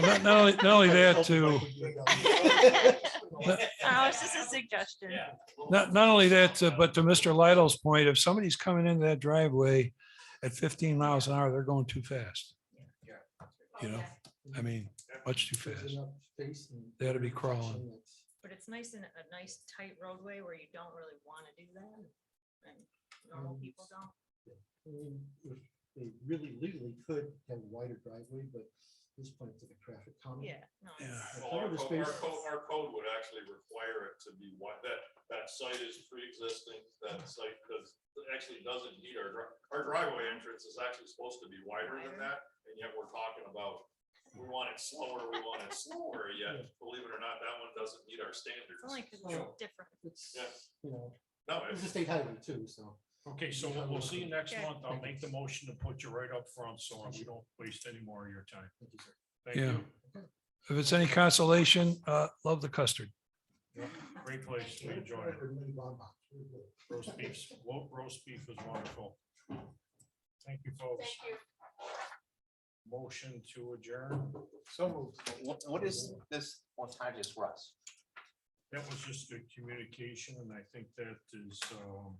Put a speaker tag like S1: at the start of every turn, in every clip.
S1: Not, not only, not only that too,
S2: Oh, it's just a suggestion.
S1: not, not only that, uh, but to Mr. Lidle's point, if somebody's coming into that driveway at fifteen miles an hour, they're going too fast. You know, I mean, much too fast. They ought to be crawling.
S2: But it's nice in a nice tight roadway where you don't really want to do that. And normal
S3: Mm.
S2: people don't.
S3: I mean, if They really legally could have a wider driveway, but at this point it's a traffic count.
S2: Yeah. no,
S1: Yeah.
S2: it's-
S4: Well, Our code, our code, our code would actually require it to be wide, that, that site is pre-existing, that site does, actually doesn't need our, dri- our driveway entrance is actually supposed to be wider than
S2: Wider.
S4: that, and yet we're talking about, we want it slower, we want it slower, yet, believe it or not, that one doesn't meet our standards.
S2: It's only because
S3: Oh.
S2: it's different.
S3: It's,
S4: Yeah.
S3: you know,
S4: No,
S3: it's a
S4: it's,
S3: state highway too, so.
S5: Okay, so we'll- we'll see you next
S2: Okay.
S5: month. I'll make the motion to put you right up front, so we don't waste any more of your time.
S3: thank you, sir.
S5: Thank
S1: Yeah.
S5: you.
S1: If it's any consolation, uh, love the custard.
S5: Great place. We
S3: Way to
S5: enjoyed
S3: put up
S5: it.
S3: with many bonbons. Really good.
S5: Roast beefs, wo- roast beef was wonderful. Thank you, folks. Motion to adjourn.
S6: So what, what is this autonomous Russ?
S5: That was just a communication, and I think that is, um,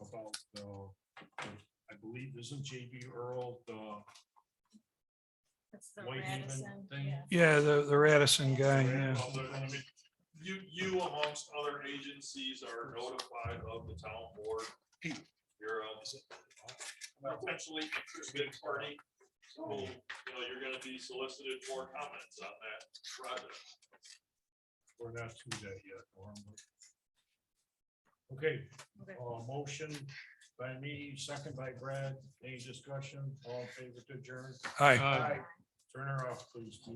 S5: about, uh, I believe, isn't JB Earl, the
S2: It's the
S5: Whitehaven
S2: Radisson.
S5: thing?
S2: yeah.
S1: Yeah, the, the Radisson guy, yeah.
S4: Well, there- I mean, You, you amongst other agencies are notified of the town board. You're uh, a uh, potentially interested party. So,
S5: Oh,
S4: you know, you're gonna be solicited for comments on that project.
S5: We're not to that yet. or am I? Okay,
S2: Okay.
S5: uh, motion by me, second by Brad, any discussion, all in favor to adjourn?
S1: Hi.
S5: Turn her off, please.